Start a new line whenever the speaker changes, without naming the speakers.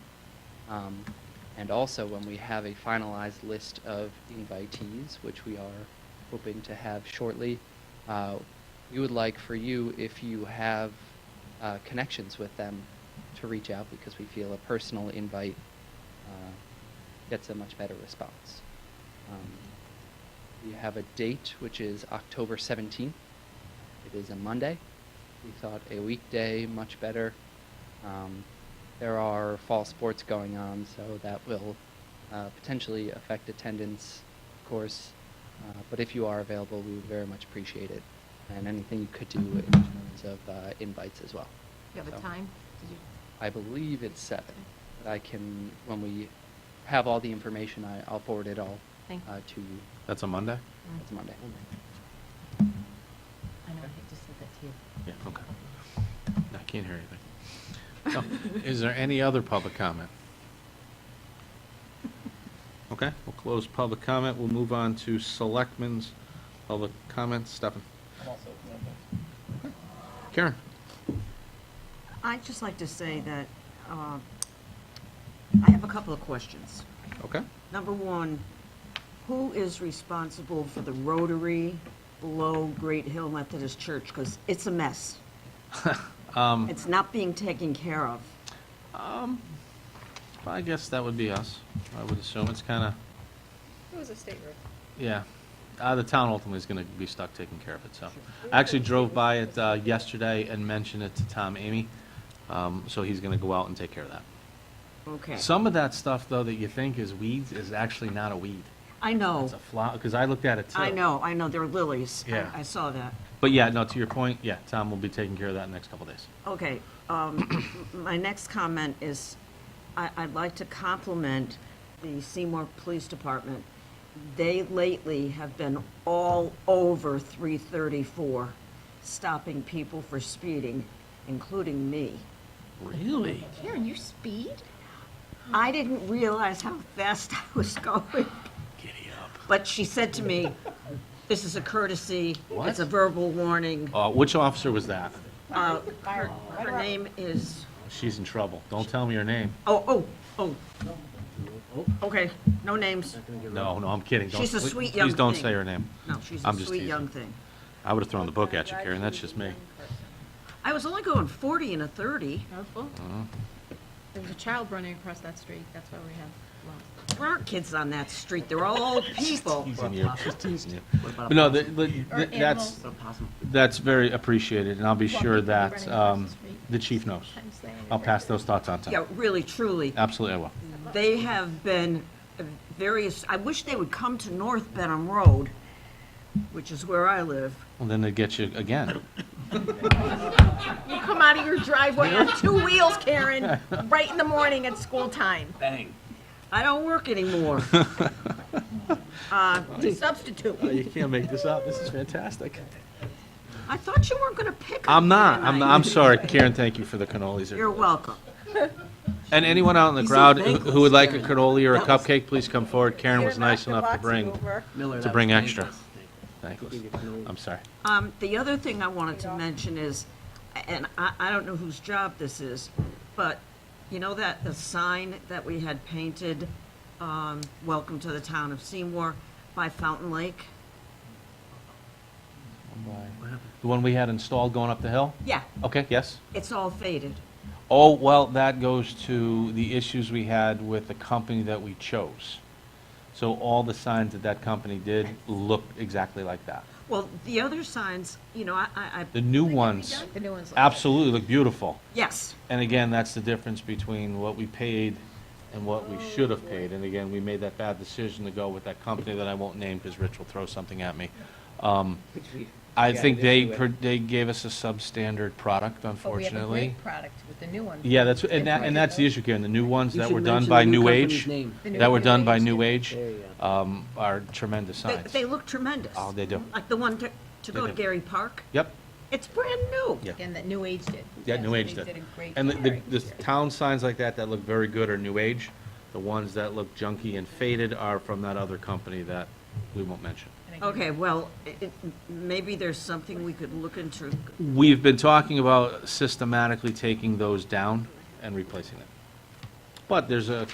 Um, And also, when we have a finalized list of invitees, which we are hoping to have shortly, uh, we would like for you, if you have uh, connections with them, to reach out because we feel a personal invite uh, gets a much better response. Um, We have a date, which is October 17th. It is a Monday. We thought a weekday much better. Um, there are fall sports going on, so that will uh, potentially affect attendance, of course. Uh, but if you are available, we would very much appreciate it. And anything you could do in terms of uh, invites as well.
You have a
So-
time? Did you-
I believe it's seven.
Okay.
But I can, when we have all the information, I, I'll forward it all
Thank
uh, to you.
That's a Monday?
Mm.
It's Monday.
I know, I just said that to you.
Yeah, okay. I can't hear anything. No. Is there any other public comment? Okay, we'll close public comment. We'll move on to selectmen's public comments. Stefan? Karen?
I'd just like to say that uh, I have a couple of questions.
Okay.
Number one, who is responsible for the rotary below Great Hill Methodist Church? Because it's a mess. It's not being taken care of.
Um, I guess that would be us. I would assume it's kind of,
It was a state road.
yeah. Uh, the town ultimately is going to be stuck taking care of it, so. I actually drove by it, uh, yesterday and mentioned it to Tom Amy. Um, so he's going to go out and take care of that.
Okay.
Some of that stuff, though, that you think is weeds is actually not a weed.
I know,
It's a flower, because I looked at it too.
Oh. I know, I know, they're lilies. I-
Yeah.
I saw that.
But yeah, no, to your point, yeah, Tom will be taking care of that in the next couple days.
Okay, um, my next comment is, I, I'd like to compliment the Seymour Police Department. They lately have been all over three thirty-four, stopping people for speeding, including me.
Really?
Karen, you speed?
I didn't realize how fast I was going,
Giddy up.
but she said to me, this is a courtesy,
What?
it's a verbal warning.
Uh, which officer was that?
Uh, her, her name is,
She's in trouble. Don't tell me her name.
oh, oh, oh. Okay, no names.
No, no, I'm kidding. Don't-
She's a
please-
sweet young
Please don't
thing.
say her name.
No, she's a
I'm just
sweet
teasing.
young thing.
I would have thrown the book at you, Karen. That's just me.
I was only going 40 and a 30.
Powerful.
Mm-hmm.
There was a child running across that street, that's why we have laws.
There aren't kids on that street. They're all old people.
Teasing you, just teasing you. But no, the- the-
Or
that's,
animals.
that's very appreciated, and I'll be sure
Walking,
that,
running across
um,
the street.
the chief knows.
Sometimes they-
I'll pass those thoughts on to
Yeah,
him.
really, truly.
Absolutely, I will.
They have been various, I wish they would come to North Benham Road, which is where I live.
Well, then they get you again.
You come out of your driveway on two wheels, Karen, right in the morning at school time.
I don't work anymore. Uh,
Substitute.
Oh, You can't make this up. This is fantastic.
I thought you weren't going to pick on
I'm
me
not. I'm,
tonight.
I'm sorry, Karen. Thank you for the cannolis.
You're welcome.
And anyone out in the crowd who who would like a cannoli or a cupcake, please come forward. Karen was nice enough to bring, to bring extra. Thanks. I'm sorry.
Um, the other thing I wanted to mention is, and I, I don't know whose job this is, but you know that, the sign that we had painted, um, welcome to the town of Seymour by Fountain Lake?
The one we had installed going up the hill?
Yeah,
Okay, yes?
it's all faded.
Oh, well, that goes to the issues we had with the company that we chose. So all the signs that that company did looked exactly like that.
Well, the other signs, you know, I, I,
The
I,
new ones
The new ones.
absolutely look beautiful.
yes,
And again, that's the difference between what we paid and what
Oh,
we should have paid. And again, we made that bad decision to go with that company that I won't name because Rich will throw something at me. Um, I think they, pro- they gave us a substandard product,
But Oh, we have a
unfortunately.
great product with the new one.
Yeah, that's, and that, and that's the issue, Karen, the new ones that were done by New Age,
The new
that were
one.
done by New Age, um, are tremendous
they,
signs.
they look tremendous.
Oh, they do.
Like the one to, to go
They
to
do.
Gary Park,
Yep,
it's brand new.
Yeah.
Again, that New Age did.
yeah,
Yes,
New Age
They did
did.
a great.
And the, the,
job.
the town signs like that that look very good are New Age. The ones that look junky and faded are from that other company that we won't mention.
And again,
Okay, well, it, it- maybe there's something we could look into,
We've been talking about systematically taking those down and replacing them. But there's a